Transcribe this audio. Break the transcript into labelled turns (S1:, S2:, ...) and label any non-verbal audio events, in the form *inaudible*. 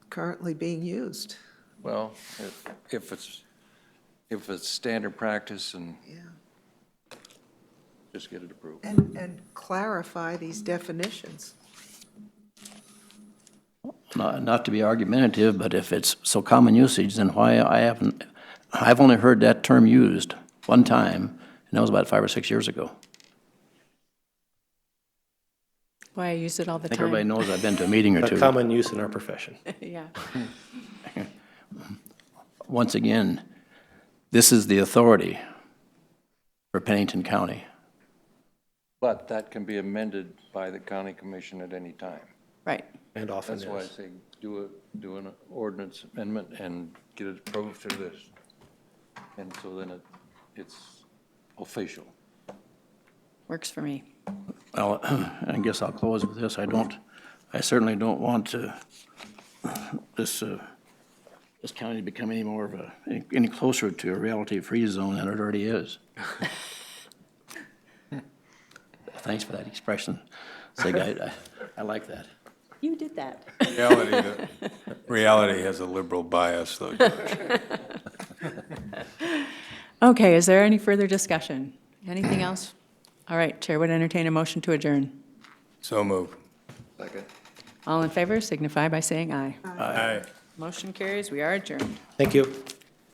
S1: currently being used.
S2: Well, if- if it's, if it's standard practice and
S1: Yeah.
S2: just get it approved.
S1: And, and clarify these definitions.
S3: Not not to be argumentative, but if it's so common usage, then why I haven't, I've only heard that term used one time, and that was about five or six years ago.
S4: Why I use it all the
S3: I think
S4: time.
S3: everybody knows I've been to a meeting or
S5: A
S3: two.
S5: common use in our profession.
S4: *laughs* Yeah.
S3: Once again, this is the authority for Pennington County.
S2: But that can be amended by the county commission at any time.
S4: Right.
S5: And often
S2: That's why I
S5: is.
S2: say do a, do an ordinance amendment and get it approved through this. And so then it, it's official.
S4: Works for me.
S3: Well, *clears throat* I guess I'll close with this. I don't, I certainly don't want to, this, uh, this county to become any more of a, any closer to a reality-free zone than it already is. Thanks for that expression. Sig, I, I- I like that.
S4: You did that.
S6: Reality, that- reality has a liberal bias, though.
S4: Okay, is there any further discussion? Anything else? All right, Chair would entertain a motion to adjourn.
S6: So move.
S2: Second.
S4: All in favor signify by saying aye.
S6: Aye.
S4: Motion carries, we are adjourned.
S5: Thank you.